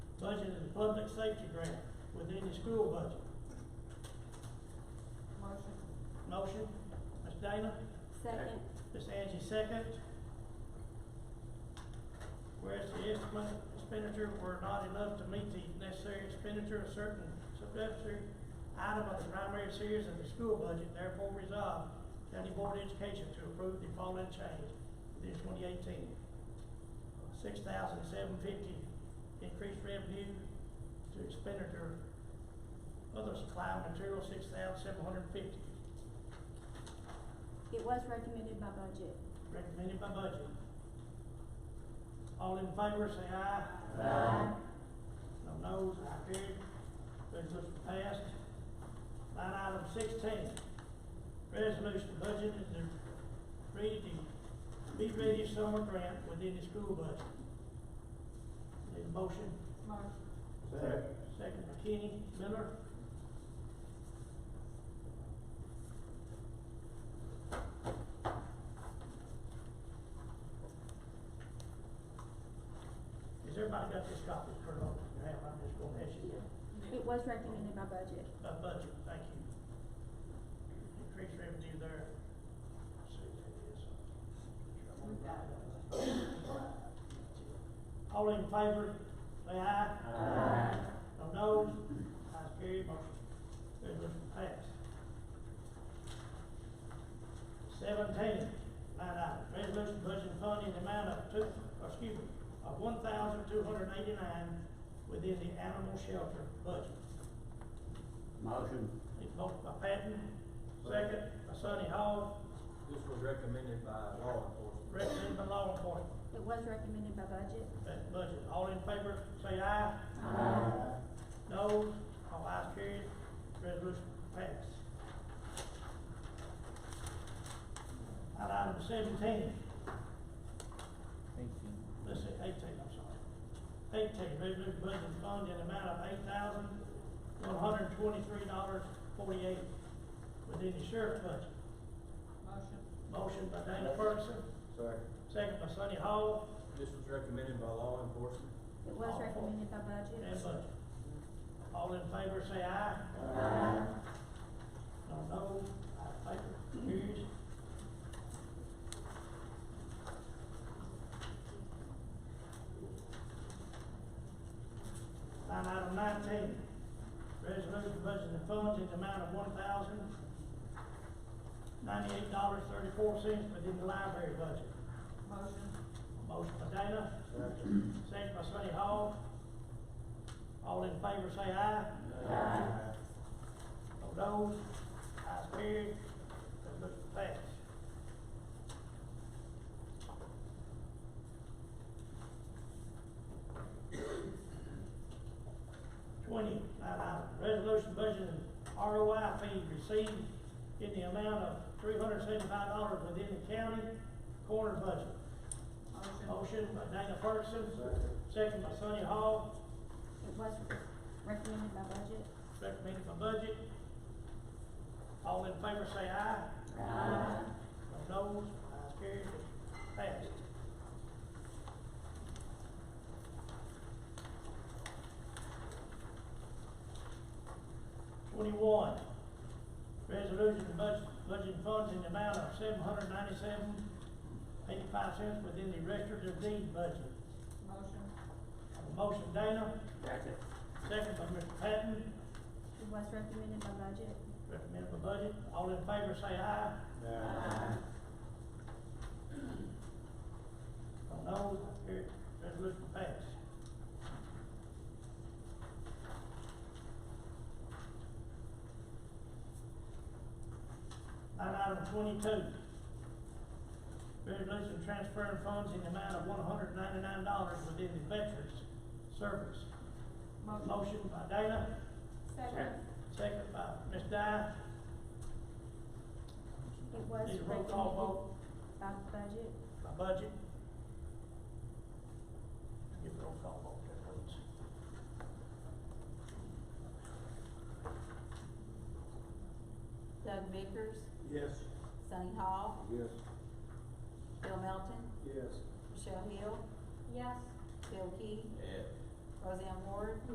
public safety grant within the school budget. Motion. Motion, Ms. Dana, Second. Ms. Angie second. Whereas the estimate expenditure were not enough to meet the necessary expenditure of certain supplementary item of the primary series of the school budget, therefore resolved, County Board of Education to approve the following change within twenty eighteen. Six thousand seven fifty increased revenue to expenditure, other supply and material, six thousand seven hundred fifty, It was recommended by budget. recommended by budget. All in favor, say aye. Aye. No noes, I carried. Resolution passed. Line item sixteen, resolution budget is the ready, be ready summer grant within the school budget. Need a motion? Motion. Second. Second by Kenny Miller. Has everybody got this copy, Kurt, on your hand, I'm just gonna ask you, It was recommended by budget. uh, budget, thank you. Increase revenue there. Let's see what that is. All in favor, say aye. Aye. No noes, ayes carried, motion, resolution passed. Seventeen, line item, resolution budget fund in the amount of two, or excuse me, of one thousand two hundred eighty-nine within the animal shelter budget. Motion. Need a motion by Patton, second by Sonny Hall, This was recommended by law enforcement. recommended by law enforcement. It was recommended by budget. That's the budget. All in favor, say aye. Aye. No, all ayes carried, resolution passed. Line Item seventeen, let's see, eighteen, I'm sorry. Eighteen, resolution budget fund in amount of eight thousand, one hundred and twenty-three dollars, forty-eight within the sheriff's budget. Motion. Motion by Dana Ferguson, Second. second by Sonny Hall, This was recommended by law enforcement. It was recommended by budget. and budget. All in favor, say aye. Aye. No, no, out of favor, carries. Line item nineteen, resolution budgeting funds in the amount of one thousand ninety-eight dollars thirty-four cents within the library budget. Motion. Motion by Dana, Second. second by Sonny Hall. All in favor, say aye. Aye. No those, ayes carried, resolution passed. Twenty, line item, resolution budget and ROI fee received in the amount of three hundred seventy-five dollars within the county corner budget. Motion by Dana Ferguson, Second. second by Sonny Hall, It was recommended by budget. recommended by budget. All in favor say aye. Aye. No noes, ayes carried, passed. Twenty-one, resolution to budget, budget funds in the amount of seven hundred ninety-seven eighty-five cents within the registered of deed budget. Motion. Have a Motion Dana, Second. second by Mr. Patton. It was recommended by budget. Recommend the budget, all in favor say aye, Aye. no noes, carried, resolution passed. Line item twenty-two. Resolution transferring funds in the amount of one hundred ninety-nine dollars within the Veterans Service. Motion by Dana, Second. second by Ms. Dye, It was Need a roll recommended call by budget. My budget. Give roll call vote there, please. Doug Bickers, Yes. Sunny Hall, Yes. Bill Melton, Yes. Michelle Hill, Yes. Bill Key, Yeah. Roseanne Ward,